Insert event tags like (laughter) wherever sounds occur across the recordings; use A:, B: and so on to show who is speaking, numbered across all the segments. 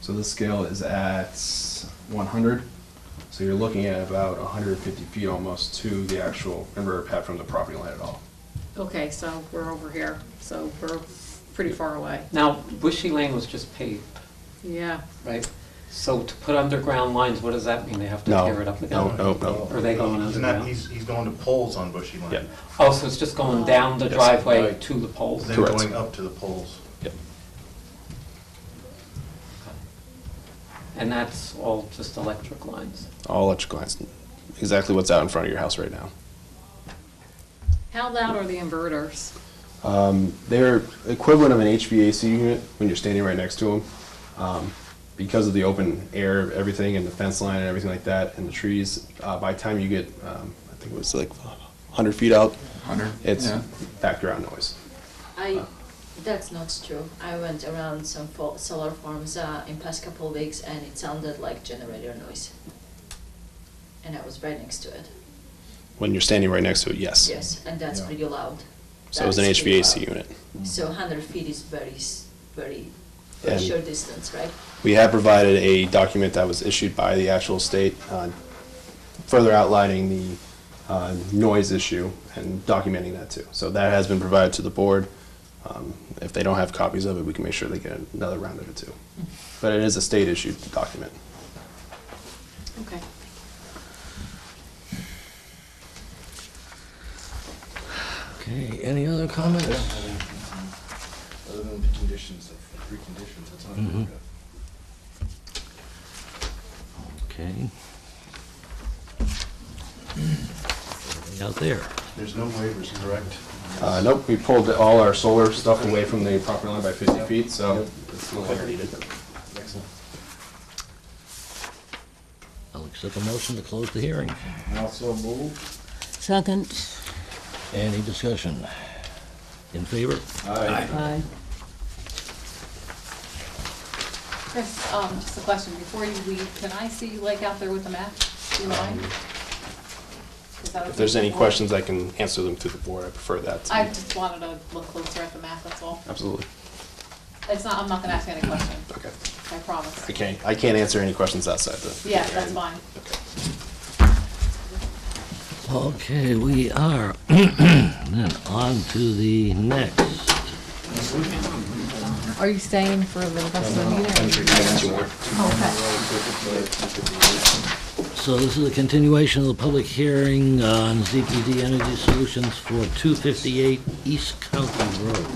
A: So this scale is at 100. So you're looking at about 150 feet almost to the actual inverter pad from the property line at all.
B: Okay, so we're over here, so we're pretty far away.
C: Now, Bushy Lane was just paved,
B: Yeah,
C: right? So to put underground lines, what does that mean? They have to tear it up again?
D: Oh,
A: No, no, no.
C: Are they going
E: He's
C: underground?
E: not, he's, he's going to poles on Bushy Lane.
F: Yeah.
C: Oh, so it's just going down the
F: Yes.
C: driveway to the poles?
E: Then
F: Correct.
E: going up to the poles.
F: Yep.
C: And that's all just electric lines?
F: All electrical lines, exactly what's out in front of your house right now.
B: how loud are the inverters?
F: They're equivalent of an HVAC unit when you're standing right next to them. Um, because of the open air, of everything, and the fence line and everything like that, and the trees, uh, by the time you get, um, I think it was like 100 feet out,
A: 100?
F: it's background noise.
G: I, that's not true. I went around some fo- solar farms uh, in past couple of weeks and it sounded like generator noise. And I was right next to it.
F: When you're standing right next to it, yes.
G: Yes, and that's
E: Yeah.
G: pretty loud.
F: So it was an
G: That's pretty
F: HVAC
G: loud.
F: unit.
G: So 100 feet is very, s- very, very
F: And-
G: short distance, right?
F: We have provided a document that was issued by the actual state, uh, further outlining the uh, noise issue and documenting that too. So that has been provided to the board. Um, If they don't have copies of it, we can make sure they get another round of it too. But it is a state-issued document.
B: Okay.
D: Okay, any other comments?
E: Other than the conditions, the three conditions, that's not
D: Mm-hmm.
E: very good.
D: Okay. Out there.
E: There's no waivers, correct?
F: Uh, Nope, we pulled all our solar stuff away from the property line by 50 feet, so it's no longer needed.
E: Excellent.
D: I'll accept a motion to close the hearing.
E: Also move.
H: Second.
D: Any discussion? In favor?
H: Aye.
B: Chris, um, just a question, before you leave, can I see you like out there with the map? Do you mind? Is that
F: Um, If there's any
B: okay?
F: questions, I can answer them through the board. I prefer that. to-
B: I just wanted to look closer at the map, that's all.
F: Absolutely.
B: It's not, I'm not gonna ask you any questions,
F: Okay.
B: I promise.
F: I can't, I can't answer any questions outside the.
B: Yeah, that's fine.
D: Okay, we are (clears throat) then on to the next.
H: Are you staying for the rest of the meeting? Oh,
D: So this is a continuation of the public hearing on ZPD Energy Solutions for 258 East County Road.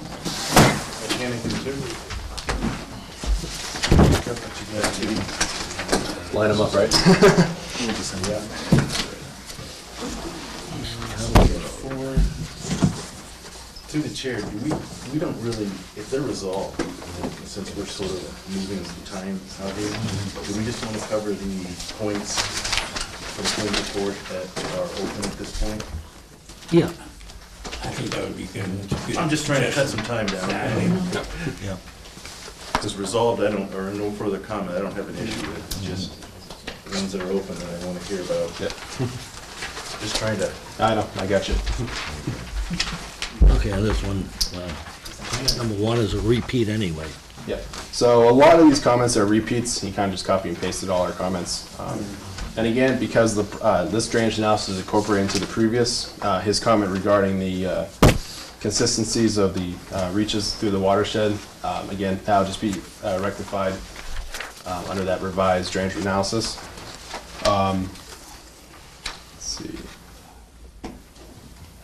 F: Line them up, right?
E: To the chair, do we, we don't really, if they're resolved, since we're sort of moving the time out here, do we just want to cover the points from the report that are open at this point?
D: Yeah,
I: I think that would be good.
E: I'm just trying to cut some time down.
D: yeah.
E: It's resolved, I don't, or no further comment, I don't have an issue with it, It's just the ones that are open that I want to hear about.
F: Mm-hmm. Yeah.
E: Just trying to,
F: I know, I got you.
D: Okay, this one, uh, number one is a repeat anyway.
F: Yeah, so a lot of these comments are repeats, he kind of just copy and pasted all our comments. Um, And again, because the, uh, this drainage analysis is incorporated into the previous, uh, his comment regarding the uh, consistencies of the uh, reaches through the watershed, um, again, that'll just be uh, rectified um, under that revised drainage analysis. Um, Let's see.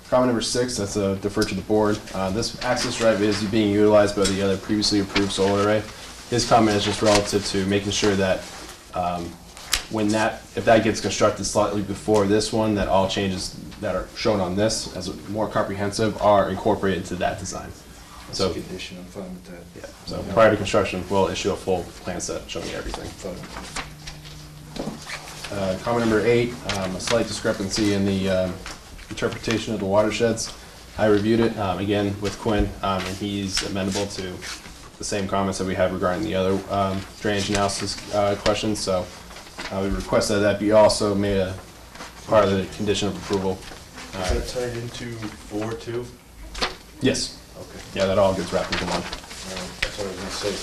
F: Comment number six, that's a defer to the board. Uh, This access drive is being utilized by the other previously approved solar array. His comment is just relative to making sure that um, when that, if that gets constructed slightly before this one, that all changes that are shown on this as more comprehensive are incorporated to that design.
E: that's a
F: So,
E: condition, I'm fine with that.
F: yeah, so prior to construction, we'll issue a full plan set showing everything.
E: Fine with that.
F: Uh, Comment number eight, um, a slight discrepancy in the um, interpretation of the watersheds. I reviewed it, um, again, with Quinn, um, and he's amendable to the same comments that we have regarding the other um, drainage analysis uh, questions, so uh, we request that that be also made a part of the condition of approval. Uh,
E: Is that tied into four two?
F: Yes,
E: Okay.
F: yeah, that all gets wrapped into one.
E: Um, That's what I was gonna say,